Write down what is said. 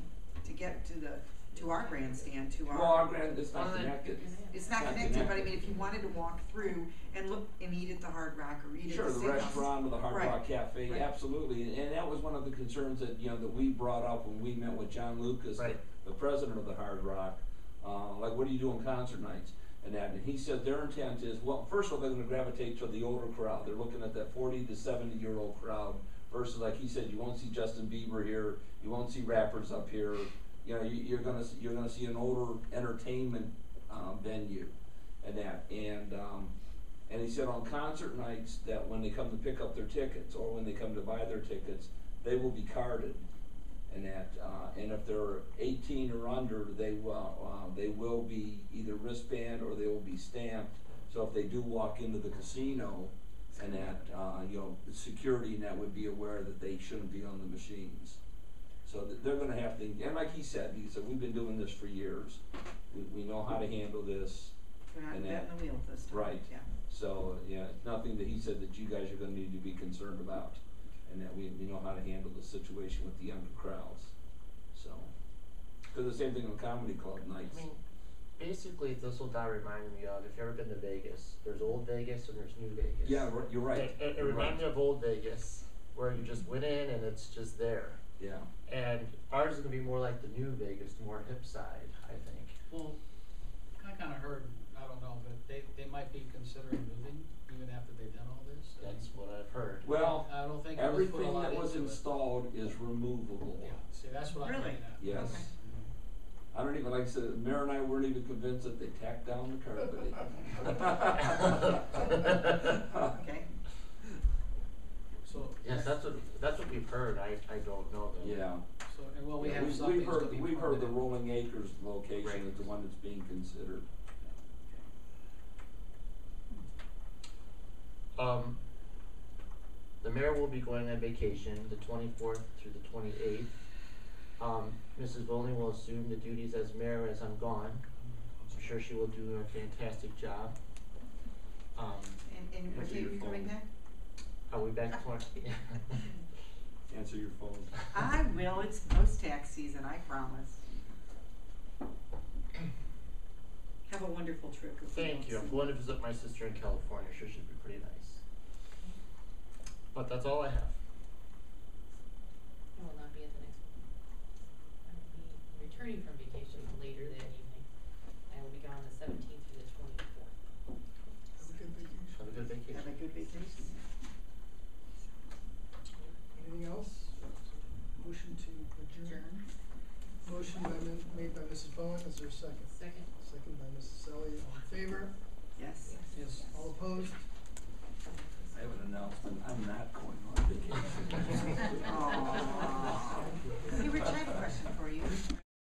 get to the, to our grandstand, to our. Well, our grand is Well, not then- connected. It's not Not connected, but I connected. mean, if you wanted to walk through and look and eat at the Hard Rock or eat at Sure, the the Steakhouse. restaurant or the Hard Right. Rock Cafe, Right. absolutely, and, and that was one of the concerns that, you know, that we brought up when we met with John Lucas, the, Right. the president of the Hard Rock. Uh, like, what do you do on concert nights and that, and he said their intent is, well, first of all, they're gonna gravitate to the older crowd, they're looking at that forty to seventy year old crowd. Versus, like he said, you won't see Justin Bieber here, you won't see rappers up here, you know, you, you're gonna, s- you're gonna see an older entertainment, um, venue and that, and, um, and he said on concert nights that when they come to pick up their tickets or when they come to buy their tickets, they will be carded. And that, uh, and if they're 18 or under, they will, uh, they will be either wristband or they will be stamped. So if they do walk into the casino and that, uh, you know, the security and that would be aware that they shouldn't be on the machines. So that they're gonna have to, and like he said, he said, we've been doing this for years. We, we know how to handle this. We're not and that. betting the wheel this time, yeah. Right. So, yeah, it's nothing that he said that you guys are gonna need to be concerned about, and that we, we know how to handle the situation with the younger crowds, so. Cause the same thing on comedy club nights, I mean, basically, this will die reminding me of if you ever been to Vegas. There's old Vegas and there's new Vegas. yeah, ri- you're right, It, it, it you're right, reminds me of old Vegas, where you just went in and it's just there. yeah, And ours is gonna be more like the new Vegas, the more hip side, I think. Well, I kinda heard, I don't know, but they, they might be considering moving even after they've done all this. I mean, That's what I've heard. well, I don't think it was put a everything lot that was into it. installed is removable, Yeah, see, that's what I'm Really? getting at. yes. Okay. I don't even, like I said, Mayor and I weren't even convinced that they tacked down the carpet. Okay, So. Yes, that's what that's what we've heard. I, I don't know though. Yeah. So, and well, we Yeah, have we've- something We've that's gonna be heard, we've heard the permanent. Rolling Acres location Right. is the one that's being considered. Um, the mayor will be going on vacation the 24th through the 28th. Um, Mrs. Volney will assume the duties as mayor as I'm gone. I'm sure she will do a fantastic job. Um, and, and what Answer day are your you coming phone. back? I'll be back tomorrow. Answer your phone. I will, it's post-tax season, I promise. Have a wonderful trip. if we Thank don't you. see I'm going to visit my sister in California. Sure, should be pretty nice. But that's all I have. I will not be at the next one. I will be returning from vacation later that evening. I will be gone the seventeenth through the twenty-fourth. Have a good you. vacation. Have a good vacation. Anything else? Motion to adjourn. Motion by, min- made by Mrs. Bowen, is there a second? Second? Second by Mrs. Selly, all in favor? Yes. Yes. All opposed? I have an announcement, I'm not going on vacation. Oh.